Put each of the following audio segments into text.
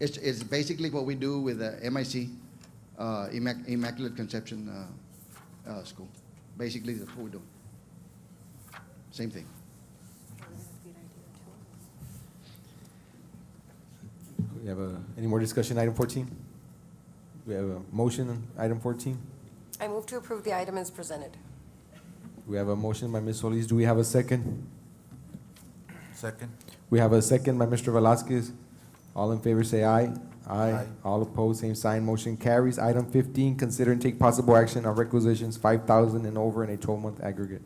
It's, it's basically what we do with the MIC, uh, Immac- Immaculate Conception, uh, uh, school. Basically, that's what we do. Same thing. We have a, any more discussion, item 14? We have a motion, on item 14? I move to approve the item as presented. We have a motion by Ms. Solis, do we have a second? Second. We have a second by Mr. Velazquez. All in favor say aye. Aye. Aye. All opposed, same sign, motion carries. Item 15, consider and take possible action on requisitions 5,000 and over in a 12-month aggregate.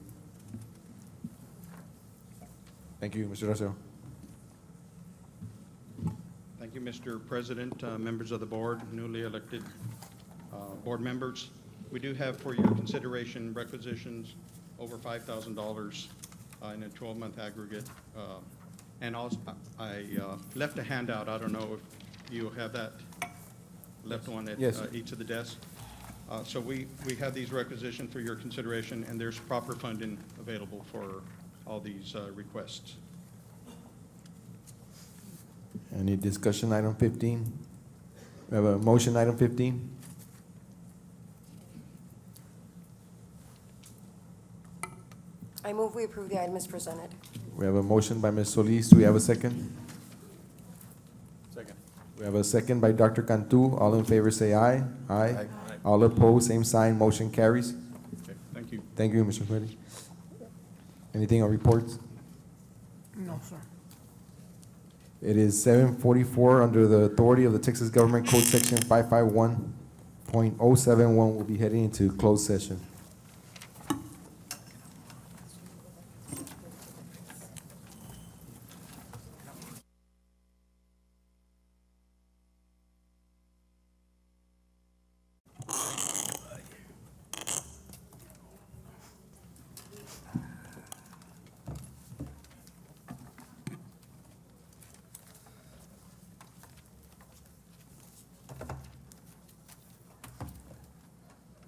Thank you, Mr. Rosero. Thank you, Mr. President, uh, members of the board, newly elected uh, board members. We do have for your consideration requisitions over $5,000 uh, in a 12-month aggregate. Uh, And also, I uh, left a handout, I don't know if you have that left one at Yes. uh, each of the desks. Uh, So we, we have these requisitioned for your consideration, and there's proper funding available for all these uh, requests. Any discussion, item 15? We have a motion, item 15? I move we approve the item as presented. We have a motion by Ms. Solis. Do we have a second? Second. We have a second by Dr. Cantu. All in favor say aye. Aye. All opposed, same sign. Motion carries. Okay, thank you. Thank you, Mr. Committee. Anything on reports? No, sir. It is seven forty-four under the authority of the Texas Government Code Section five-five-one point oh-seven-one. We'll be heading into closed session.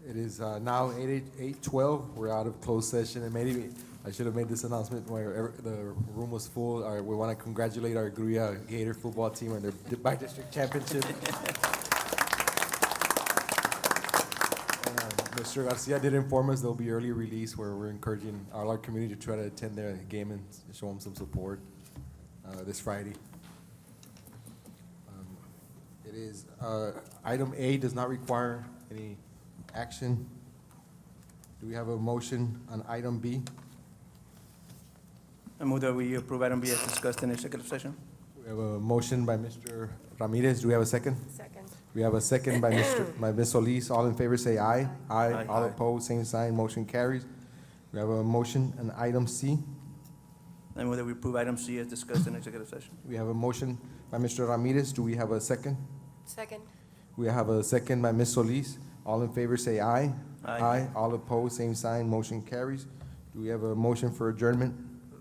It is uh, now eight, eight twelve. We're out of closed session, and maybe I should have made this announcement where ever- the room was full. Our- We want to congratulate our Gruya Gator football team on their di- by-district championship. Uh, And, uh, Mr. Garcia did inform us there'll be early release where we're encouraging all our community to try to attend their game and s- show them some support uh, this Friday. It is, uh, item A does not require any action. Do we have a motion on item B? I move that we approve item B as discussed in executive session. We have a motion by Mr. Ramirez. Do we have a second? Second. We have a second by Mr. by Ms. Solis. All in favor say aye. Aye. Aye. All opposed, same sign. Motion carries. We have a motion on item C. I move that we approve item C as discussed in executive session. We have a motion by Mr. Ramirez. Do we have a second? Second. We have a second by Ms. Solis. All in favor say aye. Aye. All opposed, same sign, motion carries. Do we have a motion for adjournment?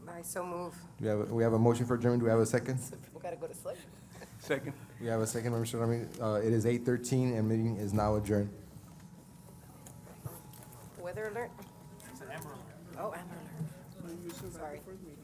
I so move. Do we have, a- we have a motion for adjournment, do we have a second? So people gotta go to sleep. Second. We have a second by Mr. Ramirez. Uh, it is eight thirteen and meeting is now adjourned. Weather alert. It's an amber alert. Oh, amber alert. Sorry.